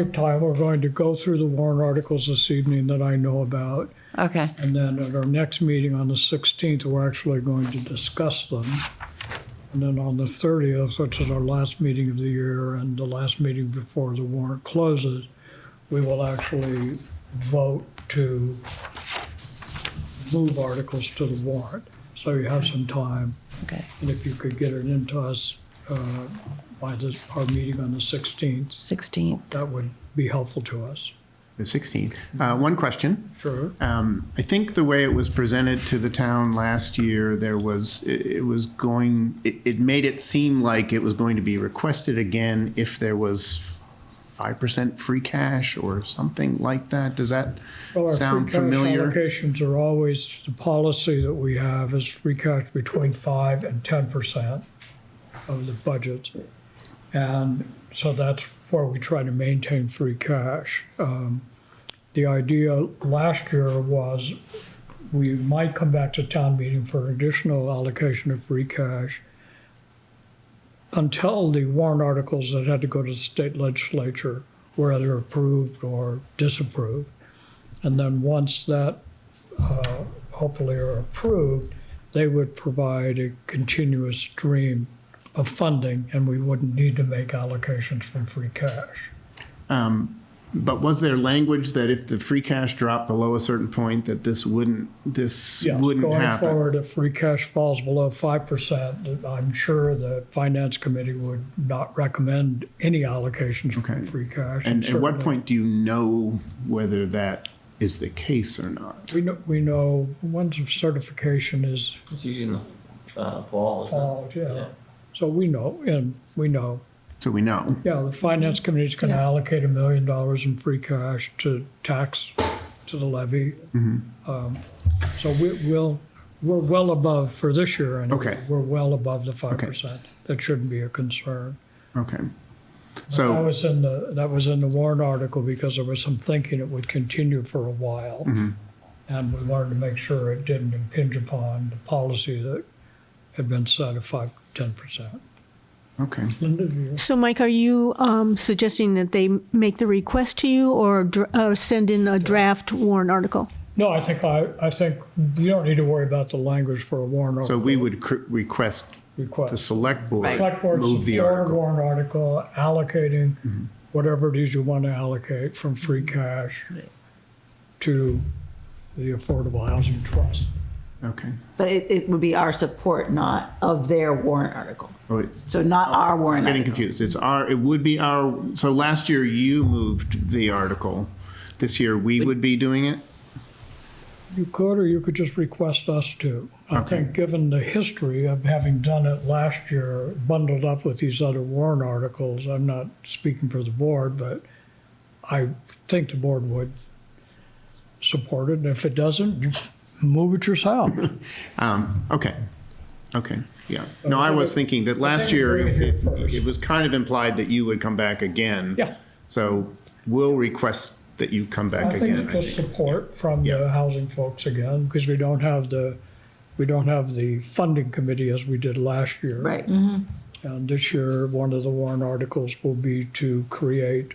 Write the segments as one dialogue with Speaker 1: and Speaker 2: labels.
Speaker 1: of time, we're going to go through the warrant articles this evening that I know about.
Speaker 2: Okay,
Speaker 1: And then at our next meeting on the 16th, we're actually going to discuss them. And then on the 30th, which is our last meeting of the year and the last meeting before the warrant closes, we will actually vote to move articles to the warrant. So you have some time.
Speaker 2: okay.
Speaker 1: And if you could get it into us uh, by this, our meeting on the 16th,
Speaker 2: 16.
Speaker 1: that would be helpful to us.
Speaker 3: The 16th. Uh, One question.
Speaker 1: Sure.
Speaker 3: Um, I think the way it was presented to the town last year, there was, it it was going, it it made it seem like it was going to be requested again if there was 5% free cash or something like that. Does that
Speaker 1: Well, our
Speaker 3: sound
Speaker 1: free cash
Speaker 3: familiar?
Speaker 1: Allocations are always, the policy that we have is free cash between five and ten percent of the budget. And so that's where we try to maintain free cash. Um, The idea last year was we might come back to town meeting for additional allocation of free cash until the warrant articles that had to go to the state legislature were either approved or disapproved. And then once that uh, hopefully are approved, they would provide a continuous stream of funding and we wouldn't need to make allocations from free cash.
Speaker 3: um, But was there language that if the free cash dropped below a certain point, that this wouldn't, this
Speaker 1: Yes,
Speaker 3: wouldn't
Speaker 1: Going
Speaker 3: happen?
Speaker 1: forward, if free cash falls below 5%, I'm sure the finance committee would not recommend any allocations from
Speaker 3: Okay.
Speaker 1: free cash.
Speaker 3: And at what
Speaker 1: certainly-
Speaker 3: point do you know whether that is the case or not?
Speaker 1: We know, we know once certification is
Speaker 4: It's usually in the uh, fall, isn't it?
Speaker 1: filed, yeah. So we know, and we know.
Speaker 3: So we know.
Speaker 1: Yeah, the finance committee's gonna allocate a million dollars in free cash to tax, to the levy.
Speaker 3: Mm-hmm.
Speaker 1: Um, So we, we'll, we're well above, for this year anyway,
Speaker 3: Okay.
Speaker 1: we're well above the five percent. That shouldn't be a concern.
Speaker 3: Okay.
Speaker 1: That
Speaker 3: So,
Speaker 1: was in the, that was in the warrant article because there was some thinking it would continue for a while.
Speaker 3: Mm-hmm.
Speaker 1: And we wanted to make sure it didn't impinge upon the policy that had been set of five, ten percent.
Speaker 3: okay.
Speaker 1: Linda, do you-
Speaker 5: So, Mike, are you um, suggesting that they make the request to you or dr- uh, send in a draft warrant article?
Speaker 1: No, I think I, I think you don't need to worry about the language for a warrant
Speaker 3: So
Speaker 1: article
Speaker 3: we would cr- request the
Speaker 1: request.
Speaker 3: select board
Speaker 1: Select board
Speaker 3: move the
Speaker 1: support a
Speaker 3: article. Mm-hmm.
Speaker 1: warrant article allocating whatever it is you want to allocate from free cash to the Affordable Housing Trust.
Speaker 3: Okay.
Speaker 6: But it, it would be our support, not of their warrant article.
Speaker 3: Oh, wait,
Speaker 6: So not our warrant
Speaker 3: Getting
Speaker 6: article.
Speaker 3: confused. It's our, it would be our, so last year you moved the article. This year we would be doing it?
Speaker 1: You could, or you could just request us to. I
Speaker 3: Okay.
Speaker 1: think, given the history of having done it last year, bundled up with these other warrant articles, I'm not speaking for the board, but I think the board would support it, and if it doesn't, you move it yourself.
Speaker 3: Um, okay. Okay, yeah. No, I was thinking that last
Speaker 1: Okay,
Speaker 3: year
Speaker 1: bring it here
Speaker 3: it
Speaker 1: first.
Speaker 3: it was kind of implied that you would come back again.
Speaker 1: Yeah.
Speaker 3: So we'll request that you come back
Speaker 1: I think
Speaker 3: again,
Speaker 1: it's
Speaker 3: I
Speaker 1: just
Speaker 3: think.
Speaker 1: support from the
Speaker 3: Yeah.
Speaker 1: housing folks again, because we don't have the, we don't have the funding committee as we did last year.
Speaker 6: Right.
Speaker 2: Mm-hmm.
Speaker 1: And Uh, this year, one of the warrant articles will be to create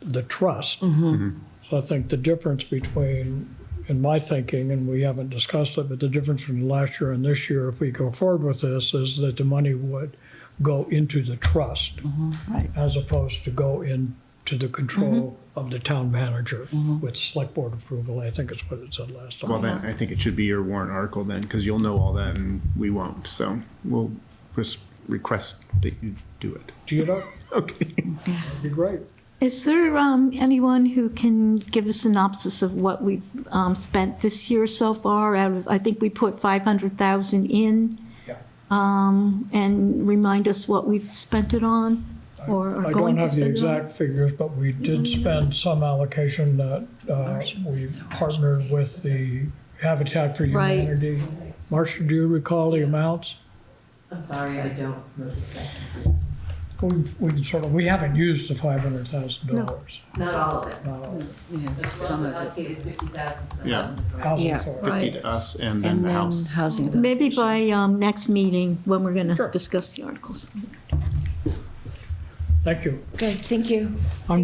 Speaker 1: the trust. So I think the difference between, in my thinking, and we haven't discussed it, but the difference between last year and this year, if we go forward with this, is that the money would go into the trust
Speaker 6: right.
Speaker 1: as opposed to go into the control of the town manager with select board approval. I think is what it said last time.
Speaker 3: Well, then, I think it should be your warrant article then, because you'll know all that and we won't. So we'll just request that you do it.
Speaker 1: Do you know?
Speaker 3: Okay.
Speaker 1: That'd be great.
Speaker 7: Is there um, anyone who can give a synopsis of what we've um, spent this year so far? Out of, I think we put 500,000 in.
Speaker 1: Yeah.
Speaker 7: Um, And remind us what we've spent it on or
Speaker 1: I
Speaker 7: are
Speaker 1: don't
Speaker 7: going to
Speaker 1: have the
Speaker 7: spend it on?
Speaker 1: exact figures, but we did spend some allocation that uh, we partnered with the Habitat for
Speaker 7: Right.
Speaker 1: Humanity. Marcia, do you recall the amounts?
Speaker 8: I'm sorry, I don't know exactly.
Speaker 1: We we can sort of, we haven't used the $500,000.
Speaker 8: Not all of it.
Speaker 1: No.
Speaker 2: Yeah,
Speaker 8: But
Speaker 2: there's some
Speaker 8: Russell
Speaker 2: of it.
Speaker 8: allocated fifty thousand to the
Speaker 3: Yeah.
Speaker 8: housing authority.
Speaker 1: Housing
Speaker 2: Yeah.
Speaker 1: authority.
Speaker 3: Fifty to us and then
Speaker 2: And
Speaker 3: the
Speaker 2: then
Speaker 3: house.
Speaker 2: housing.
Speaker 7: Maybe by um, next meeting, when we're going
Speaker 1: Sure.
Speaker 7: to discuss the articles.
Speaker 1: Thank you.
Speaker 2: Good, thank you.